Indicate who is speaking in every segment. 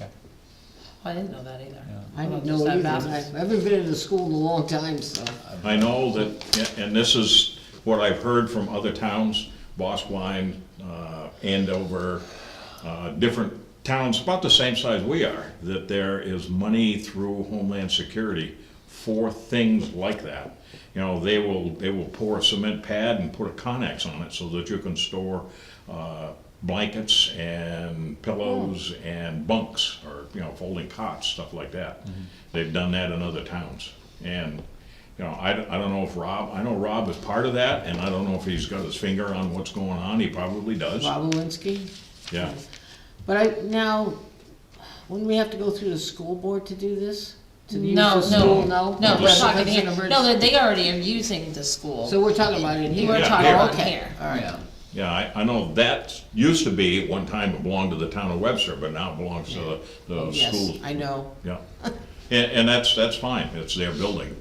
Speaker 1: Oh, I didn't know that either.
Speaker 2: Yeah.
Speaker 3: I
Speaker 1: Well,
Speaker 3: don't
Speaker 1: just
Speaker 3: know
Speaker 1: that
Speaker 3: either. I
Speaker 1: matters.
Speaker 3: haven't been in a school in a long time, so.
Speaker 4: I know that, and this is what I've heard from other towns, Bosquen, uh, Andover, uh, different towns about the same size we are, that there is money through Homeland Security for things like that. You know, they will, they will pour a cement pad and put a Connex on it so that you can store uh, blankets and pillows and bunks or, you know, folding cots, stuff like that. They've done that in other towns. And you know, I, I don't know if Rob, I know Rob is part of that, and I don't know if he's got his finger on what's going on, he probably does,
Speaker 3: Bob Alinsky?
Speaker 4: yeah.
Speaker 3: But I, now, wouldn't we have to go through the school board to do this? To use
Speaker 1: No,
Speaker 3: the
Speaker 1: no,
Speaker 3: school?
Speaker 1: no,
Speaker 4: No,
Speaker 1: no, we're
Speaker 4: just-
Speaker 1: talking
Speaker 3: That's
Speaker 1: here,
Speaker 3: an emergency.
Speaker 1: no, they already are using the school.
Speaker 3: So we're talking about it here?
Speaker 1: We're
Speaker 4: Yeah,
Speaker 1: talking
Speaker 4: here.
Speaker 1: about
Speaker 3: Okay,
Speaker 1: here.
Speaker 3: All right.
Speaker 4: Yeah, I, I know that used to be, one time it belonged to the town of Webster, but now it belongs to
Speaker 2: Oh,
Speaker 4: the, the
Speaker 3: Yes,
Speaker 4: school.
Speaker 3: I know.
Speaker 4: Yeah, and, and that's, that's fine, it's their building.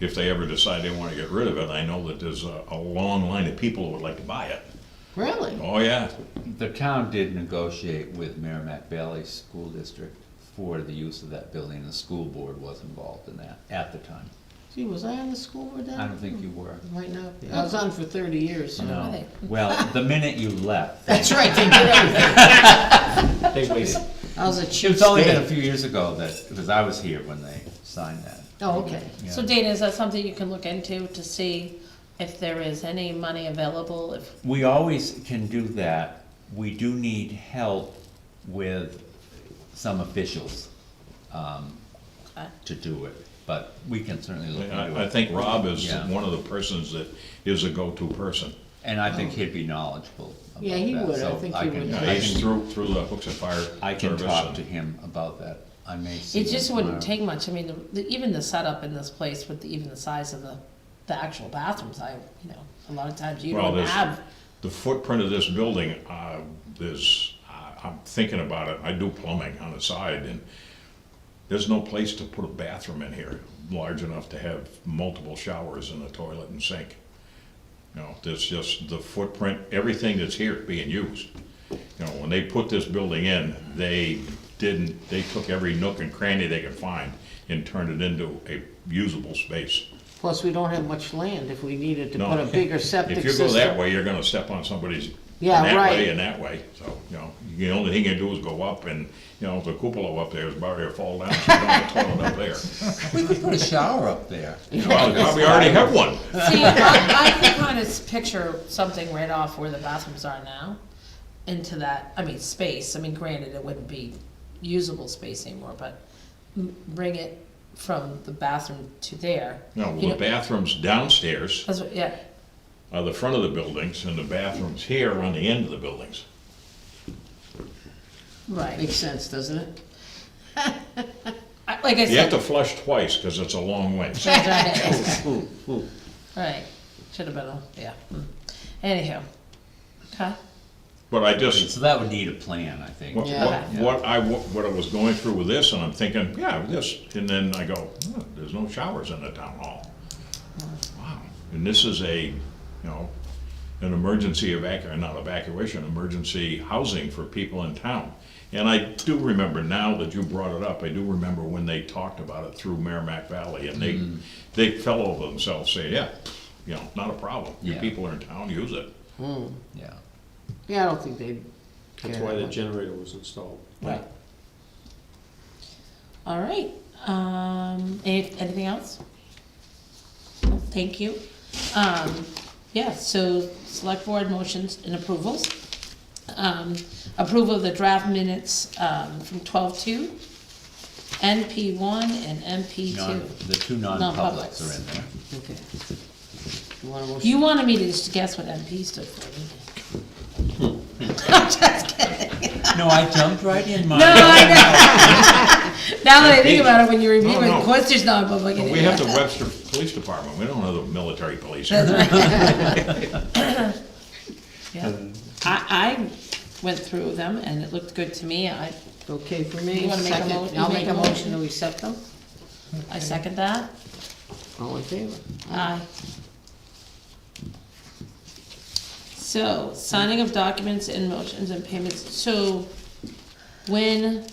Speaker 4: If they ever decide they wanna get rid of it, I know that there's a, a long line of people who would like to buy it.
Speaker 3: Really?
Speaker 4: Oh, yeah,
Speaker 2: The town did negotiate with Merrimack Valley School District for the use of that building, and the school board was involved in that at the time.
Speaker 3: Gee, was I on the school board then?
Speaker 2: I don't think you were.
Speaker 3: Might not. be. I was on for thirty years, so.
Speaker 2: No, well, the minute you left.
Speaker 3: That's right, they did everything.
Speaker 2: They waited.
Speaker 3: I was a chief
Speaker 2: It's only been a
Speaker 3: state.
Speaker 2: few years ago that, because I was here when they signed that.
Speaker 3: Oh, okay.
Speaker 2: Yeah.
Speaker 1: So Dana, is that something you can look into to see if there is any money available, if,
Speaker 2: We always can do that. We do need help with some officials um,
Speaker 1: Okay.
Speaker 2: to do it, but we can certainly look into
Speaker 4: I, I
Speaker 2: it.
Speaker 4: think Rob is
Speaker 2: Yeah.
Speaker 4: one of the persons that is a go-to person.
Speaker 2: And I think he'd be knowledgeable about that.
Speaker 3: Yeah, he would. I
Speaker 2: so
Speaker 3: think he
Speaker 2: can-
Speaker 3: would.
Speaker 2: I
Speaker 4: Yeah,
Speaker 2: can-
Speaker 4: he's through, through the Hooks and Fire Service.
Speaker 2: I can talk
Speaker 4: and-
Speaker 2: to him about that. I may see
Speaker 1: it
Speaker 2: him
Speaker 1: just wouldn't
Speaker 4: uh,
Speaker 2: tomorrow.
Speaker 1: take much, I mean, the- the- even the setup in this place with the- even the size of the, the actual bathrooms, I, you know, a lot of times you
Speaker 4: Well,
Speaker 1: don't
Speaker 4: there's-
Speaker 1: have,
Speaker 4: The footprint of this building, uh, there's, I- I'm thinking about it, I do plumbing on the side, and there's no place to put a bathroom in here large enough to have multiple showers and a toilet and sink. You know, there's just the footprint, everything that's here being used. You know, when they put this building in, they didn't, they took every nook and cranny they could find and turned it into a usable space.
Speaker 3: Plus, we don't have much land if we needed to
Speaker 4: No.
Speaker 3: put a bigger septic
Speaker 4: If
Speaker 3: system.
Speaker 4: you go that way, you're gonna step on somebody's,
Speaker 3: Yeah,
Speaker 4: that
Speaker 3: right.
Speaker 4: way and that way, so, you know, the only thing you do is go up and, you know, the cupola up there is about to fall down, so you don't have a toilet up there.
Speaker 2: We could put a shower up there.
Speaker 4: You Probably already have one.
Speaker 1: see, I, I can kind of picture something right off where the bathrooms are now into that, I mean, space, I mean, granted, it wouldn't be usable space anymore, but m- bring it from the bathroom to there.
Speaker 4: No,
Speaker 1: you
Speaker 4: well,
Speaker 1: know,
Speaker 4: the bathrooms downstairs
Speaker 1: That's what, yeah,
Speaker 4: are the front of the buildings, and the bathrooms here are on the end of the buildings.
Speaker 1: right.
Speaker 3: Makes sense, doesn't it?
Speaker 1: I- Like I
Speaker 4: You
Speaker 1: said,
Speaker 4: have to flush twice, because it's a long way.
Speaker 1: right, should have been, a yeah. mm. Anyhow, okay,
Speaker 4: But I just,
Speaker 2: So that would need a plan, I think.
Speaker 4: What,
Speaker 3: Yeah.
Speaker 4: what, what I, wa- what I was going through with this, and I'm thinking, yeah, this, and then I go, "Oh, there's no showers in the town hall. Wow, and this is a, you know, an emergency evacu, not evacuation, emergency housing for people in town. And I do remember, now that you brought it up, I do remember when they talked about it through Merrimack Valley, and they, they fell over themselves, saying, yeah, you know, not a problem, you
Speaker 2: Yeah.
Speaker 4: people are in town, use it.
Speaker 2: Yeah.
Speaker 3: Yeah, I don't think they.
Speaker 5: That's why the generator was installed.
Speaker 3: Right.
Speaker 1: all right, um, any- anything else? Thank you. Um, yeah, so select board motions and approvals. Um, approval of the draft minutes, um, from twelve two, NP one and NP
Speaker 2: Non-
Speaker 1: two.
Speaker 2: The two
Speaker 1: Non-publics.
Speaker 2: non-publics are in there.
Speaker 3: Okay. You want to motion?
Speaker 1: You wanted me to just guess what NP stood for, didn't you? I'm just kidding.
Speaker 2: No, I jumped right in, Mark.
Speaker 1: No, I know. Now that I think about it, when you review it,
Speaker 4: No,
Speaker 1: of
Speaker 4: no.
Speaker 1: course there's not a public.
Speaker 4: But
Speaker 1: in
Speaker 4: We
Speaker 1: it.
Speaker 4: have the Webster Police Department, we don't have the military police here.
Speaker 1: Yeah. I, I went through them and it looked good to me. I,
Speaker 3: Okay, for me,
Speaker 1: You wanna make a
Speaker 3: second,
Speaker 1: mo- you
Speaker 3: I'll
Speaker 1: make
Speaker 3: make
Speaker 1: a
Speaker 3: a
Speaker 1: motion?
Speaker 3: motion to accept them.
Speaker 1: I second that.
Speaker 3: All in favor?
Speaker 1: Aye. So, signing of documents and motions and payments, so when